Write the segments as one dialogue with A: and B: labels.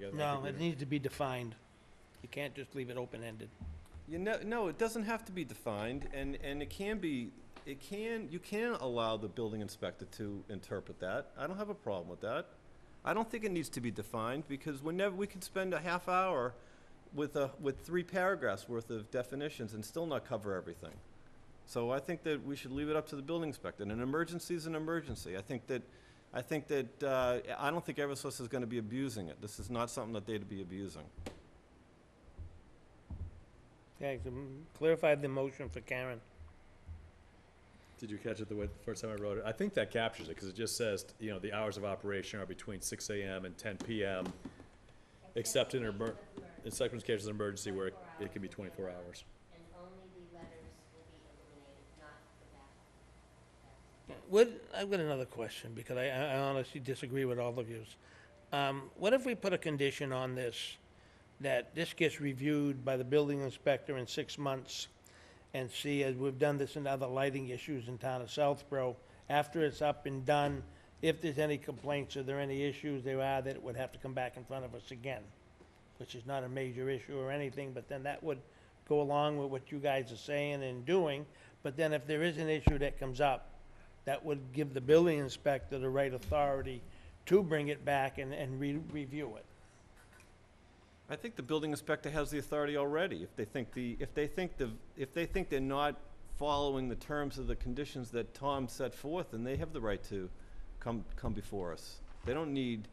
A: guess. my
B: No, it
A: computer.
B: needs to be defined. You can't just leave it open-ended.
A: You know, no, it doesn't have to be defined, and, and it can be, it can, you can allow the building inspector to interpret that. I don't have a problem with that. I don't think it needs to be defined, because whenever, we could spend a half hour with a, with three paragraphs worth of definitions and still not cover everything. So I think that we should leave it up to the building inspector, and an emergency is an emergency. I think that, I think that, uh, I don't think Eversource is gonna be abusing it. This is not something that they'd be abusing.
B: Yeah, so, mm, clarify the motion for Karen.
C: Did you catch it the way, the first time I wrote it? I think that captures it, because it just says, you know, the hours of operation are between six AM and ten PM, except in, emer- in circumstances of emergency where it- it can be twenty-four hours.
D: And only the letters will be eliminated, not the back.
B: What, I've got another question, because I, I honestly disagree with all of yous. Um, what if we put a condition on this, that this gets reviewed by the building inspector in six months, and see, as we've done this in other lighting issues in town of Southborough, after it's up and done, if there's any complaints, or there any issues there are, that it would have to come back in front of us again, which is not a major issue or anything, but then that would go along with what you guys are saying and doing, but then if there is an issue that comes up, that would give the building inspector the right authority to bring it back and, and re- review it.
A: I think the building inspector has the authority already. If they think the, if they think the, if they think they're not following the terms of the conditions that Tom set forth, then they have the right to come, come before us. They don't need,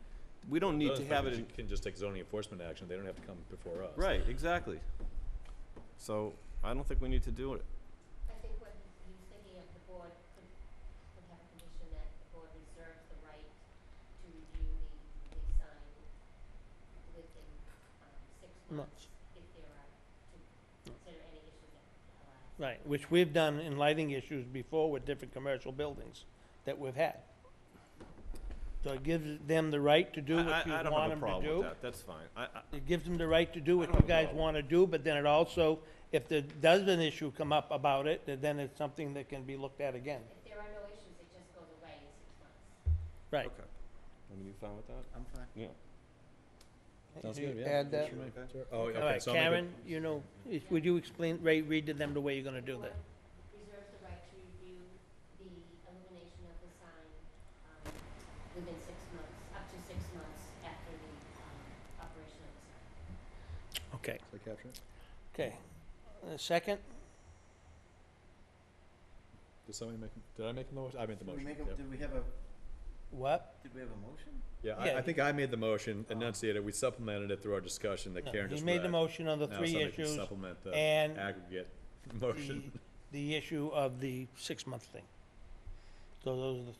A: we don't need to have it in,
C: You Can just take zoning enforcement action, they don't have to come before us.
A: right, exactly. So I don't think we need to do it.
D: I think what he was thinking of, the board could, could have a condition that the board reserves the right to review the, the sign within, um, six
B: Months.
D: months if there are, to consider any issues that arise.
B: Right. Which we've done in lighting issues before with different commercial buildings that we've had. So it gives them the right to do
A: I-
B: what you
A: I, I don't
B: want
A: have a
B: them to
A: problem with
B: do.
A: that, that's fine. I, I,
B: It gives them the right to do what
A: don't
B: you
A: have a
B: guys
A: problem.
B: want to do, but then it also, if there does an issue come up about it, that then it's something that can be looked at again.
D: If there are no issues, it just goes away in six months.
B: Right.
A: okay. I mean, you fine with that?
E: I'm fine.
A: Yeah.
C: Sounds
B: Do you
C: good, yeah.
B: Add that.
C: Sure. Oh,
B: All
C: okay,
B: right,
C: so I'll make
B: Karen, you know, is- would you explain, Ray, read to them the way you're gonna do that?
D: Reserves the right to review the elimination of the sign, um, within six months, up to six months after the, um, operation of the sign.
B: Okay,
C: it, so capture it.
B: okay. A second?
C: Did somebody make, did I make the motion? I made the
E: Did we
C: motion,
E: make a,
C: yeah.
E: did we have a,
B: What?
E: did we have a motion?
C: Yeah,
B: Yeah.
C: I, I think I made the motion, enunciated, we supplemented it through our discussion that
B: No,
C: Karen just
B: He
C: read.
B: made the motion on the
C: Now
B: three
C: somebody can
B: issues,
C: Supplement the
B: and
C: aggregate
B: the,
C: motion.
B: the issue of the six-month thing. So those are the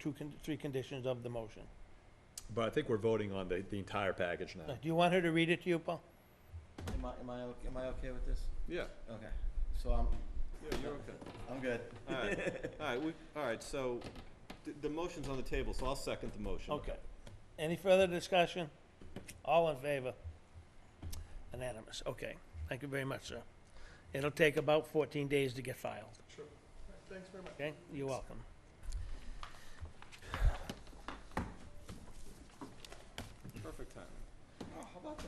B: two, con- three conditions of the motion.
C: But I think we're voting on the, the entire package
B: Now,
C: now.
B: Do you want her to read it to you, Paul?
E: Am I, am I, o- am I okay with this?
A: Yeah,
E: Okay, so I'm,
A: yeah, you're okay.
E: I'm good.
A: All right, all right, we, all right, so the, the motion's on the table, so I'll second the motion.
B: Okay. Any further discussion? All in favor? Unanimous, okay. Thank you very much, sir. It'll take about fourteen days to get filed. Sure. Thanks very much. Okay, you're welcome.
A: Perfect timing.
E: Oh, how about that?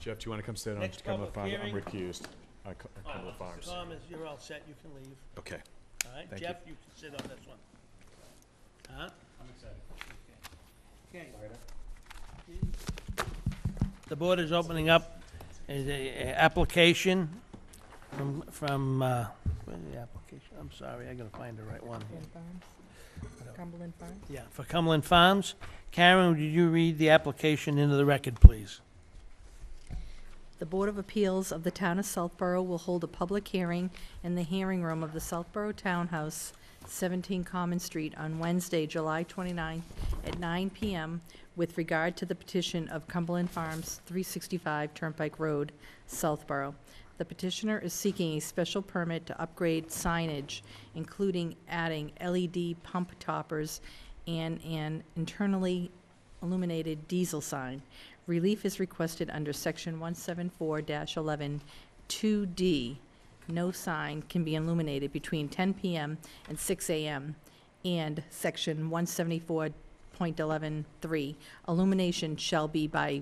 C: Jeff, do you want to come sit
B: Next public hearing.
C: recused. I co- I
B: All right, Mr. Thomas, you're all set, you can leave.
C: Okay.
B: All right,
C: Thank you.
B: Jeff, you can sit on this one. Huh? I'm excited. Okay. The board is opening up is a a application from, from, uh, where's the application? I'm sorry, I gotta find the right one here.
F: Cumberland Farms? Cumberland Farms?
B: Yeah, for Cumberland Farms. Karen, would you read the application into the record, please?
F: The Board of Appeals of the Town of Southborough will hold a public hearing in the hearing room of the Southborough Townhouse, 17 Common Street, on Wednesday, July 29th, at 9 PM, with regard to the petition of Cumberland Farms, 365 Turnpike Road, Southborough. The petitioner is seeking a special permit to upgrade signage, including adding LED pump toppers and an internally illuminated diesel sign. Relief is requested under section one seven four 11 eleven two D. No sign can be illuminated between ten PM and six AM. And section one seventy-four point eleven three, illumination shall be by